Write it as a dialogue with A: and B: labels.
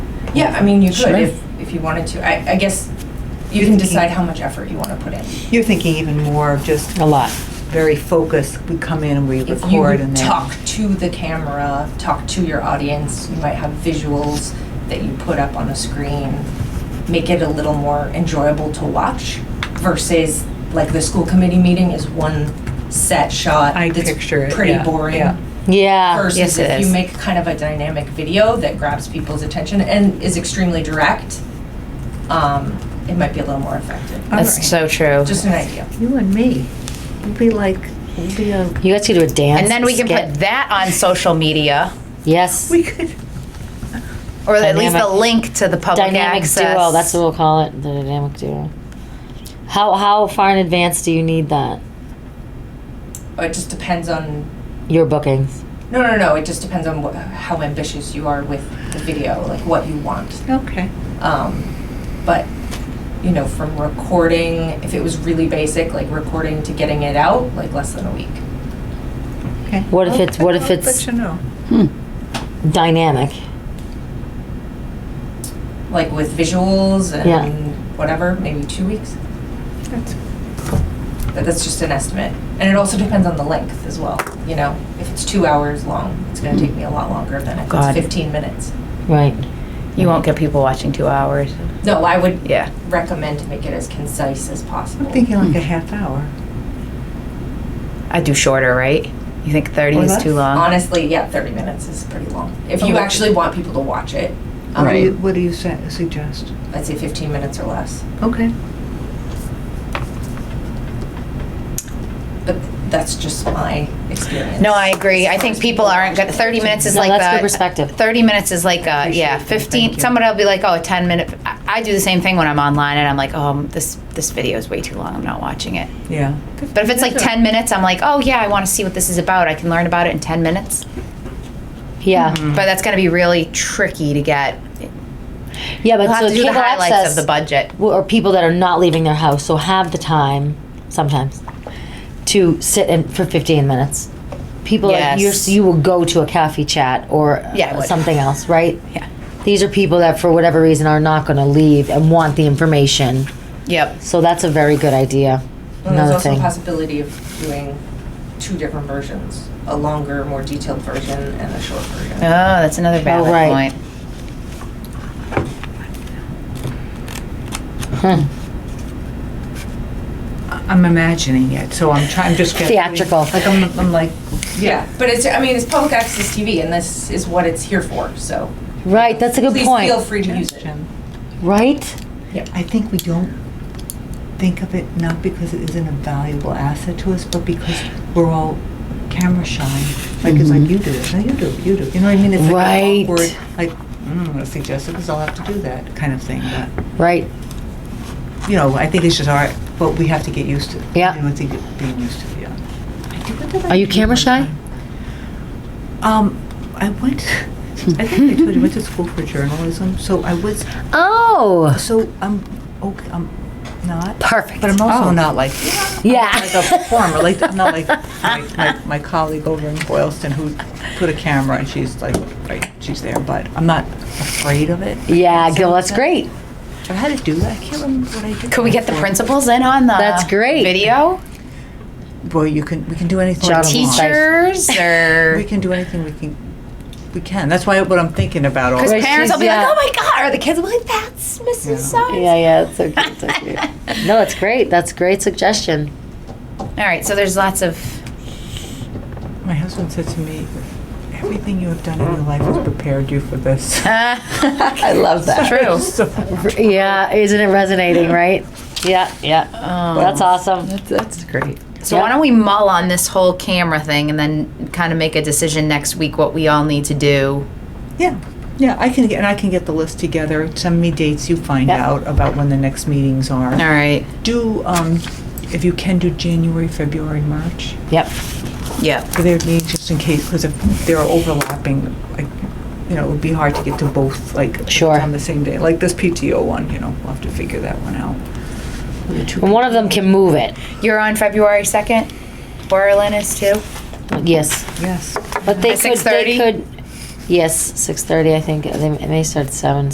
A: Yeah, I mean, you
B: Sure.
A: could if, if you wanted to. I, I guess you can decide how much effort you want to put in.
C: You're thinking even more of just
B: a lot.
C: very focused, we come in and we
A: If you
C: record and then.
A: talk to the camera, talk to your audience, you might have visuals that you put up on a screen, make it a little more enjoyable to watch versus like the school committee meeting is one set shot.
C: I
A: that's
C: picture it,
A: Pretty
C: yeah,
A: boring.
C: yeah.
B: Yeah, Ah, yes
A: versus
B: it
A: if
B: is.
A: you make kind of a dynamic video that grabs people's attention and is extremely direct, um, it might be a little more effective.
C: All
B: That's
C: right.
B: so true.
A: Just an idea.
C: You and me, we'll be like, we'll be a,
B: You guys could do a dance.
D: And then we can
B: skit.
D: put that on social media,
B: Yes,
C: we could,
D: or at least the
B: Dynamic-
D: link to the public
B: dynamic
D: access.
B: duo, that's what we'll call it, the dynamic duo. How, how far in advance do you need that?
A: It just depends on
B: Your bookings?
A: No, no, no. It just depends on what, how ambitious you are with the video, like what you want.
C: okay.
A: Um, but you know, from recording, if it was really basic, like recording to getting it out, like less than a week.
C: Okay.
B: What if it's- what if
C: I'll- I'll
B: it's-
C: Let you know.
B: Dynamic.
A: Like with visuals and
B: Yeah.
A: whatever, maybe two weeks.
C: That's-
A: But that's just an estimate, and it also depends on the length as well. You know, if it's two hours long, it's going to take me a lot longer than if
B: God.
A: it's 15 minutes.
B: Right.
D: You won't get people watching two hours.
A: No, I would
D: Yeah.
A: recommend to make it as concise as possible.
C: I'm thinking like a half hour.
D: I'd do shorter, right? You think 30
C: Or
D: is
C: less.
D: too long?
A: Honestly, yeah, 30 minutes is pretty long. If you
C: Oh.
A: actually want people to watch it, um,
C: What do you, what do you sa- suggest?
A: I'd say 15 minutes or less.
C: Okay.
A: But that's just my experience.
D: No, I agree. I think people aren't good. 30 minutes is
B: No,
D: like
B: that's
D: the
B: good perspective.
D: 30 minutes is like a,
C: Appreciate
D: yeah,
C: that.
D: 15.
C: Thank you.
D: Somebody will be like, oh, a 10 minute. I, I do the same thing when I'm online and I'm like, oh, this, this video is way too long. I'm not watching it.
C: Yeah.
D: But if it's like 10 minutes, I'm like, oh, yeah, I want to see what this is about. I can learn about it in 10 minutes.
B: Yeah.
C: Mm-hmm.
D: But that's going to be really tricky to get.
B: Yeah,
D: Mm-hmm. You'll
B: but
D: have
B: so
D: to do the
B: cable
D: highlights
B: access
D: of the budget.
B: w- or people that are not leaving their house, so have the time sometimes to sit in for 15 minutes. People like you're,
D: Yes.
B: you will go to a coffee chat or uh,
D: Yeah, I would.
B: something else, right?
D: Yeah.
B: These are people that for whatever reason are not going to leave and want the information.
D: Yep.
B: So that's a very good idea.
A: And there's
B: Another
A: also a
B: thing.
A: possibility of doing two different versions a longer, more detailed version, and a short version.
D: Oh, that's another valid
B: right.
D: point.
B: Hmm.
C: I- I'm imagining it, so I'm trying, I'm just getting.
B: Theatrical.
C: Like, I'm, I'm like,
A: Yeah, but it's, I mean, it's public access TV, and this is what it's here for, so
B: Right, that's a good
A: please
B: point.
A: feel free to use it.
C: suggestion.
B: right?
C: I think we don't think of it not because it isn't a valuable asset to us, but because we're all camera shy. Like it's like you do it, no, you do it, you do it. You know what I mean? It's like
B: Mm-hmm. Right.
C: an awkward, like mm, I'm gonna suggest it because I'll have to do that kind of thing. But
B: Right.
C: you know, I think it's just our, but we have to get used to. it.
B: Yeah.
C: You know, I think it- being used to it. Yeah. I think what did I
B: Are you
C: do
B: camera
C: one
B: shy?
C: time? Um, I went. I think I told you I went to school for journalism, so I was.
B: Oh,
C: So I'm okay. I'm not.
B: perfect.
C: But I'm also
B: Oh.
C: not like like a
B: yeah.
C: performer. Like I'm not like my, my, my colleague over in Boylston who put a camera and she's like right, she's there. But I'm not afraid of it.
B: Yeah, Gil, that's great.
C: So how to do that? I can't remember what I did.
D: Could we get the principals in on the
B: That's great.
D: video?
C: Well, you can. We can do anything.
B: Job
C: we want.
D: Teachers or
C: We can do anything. We can. We can. That's why what I'm thinking about. All
D: because
B: Right,
D: parents will be
B: she's, yeah.
D: like, "Oh my god!" Or the kids will be like, "That's Mrs.
C: Yeah.
D: So."
B: Yeah, yeah, it's so cute. So cute. no, it's great. That's a great suggestion.
D: All right, so there's lots of
C: my husband said to me, "Everything you have done in your life has prepared you for this."
B: Um,
D: uh,
C: I love that.
D: true.
C: So,
B: Yeah, isn't it resonating, right? Yeah, yeah.
D: Um,
B: That's awesome.
C: that's, that's great.
D: so why don't we mull on this whole camera thing and then kind of make a decision next week what we all need to do?
C: Yeah, yeah, I can, get and I can get the list together, send me dates, you find
B: Yeah.
C: out about when the next meetings
D: All
C: are.
D: right.
C: Do, um, if you can do January, February, March,
B: Yep.
D: Yeah.
C: for their needs, just in case, because if they're overlapping, like, you know, it would be hard to get to both, like,
B: Sure.
C: on the same day, like this PTO one, you know, we'll have to figure that one out. The two-
B: And one of them can move it.
D: You're on February second. Berlin is too.
B: Yes,
C: Yes.
B: but they
D: At
B: could. They
D: 6:30?
B: could. Yes, six thirty. I think they it may start at seven.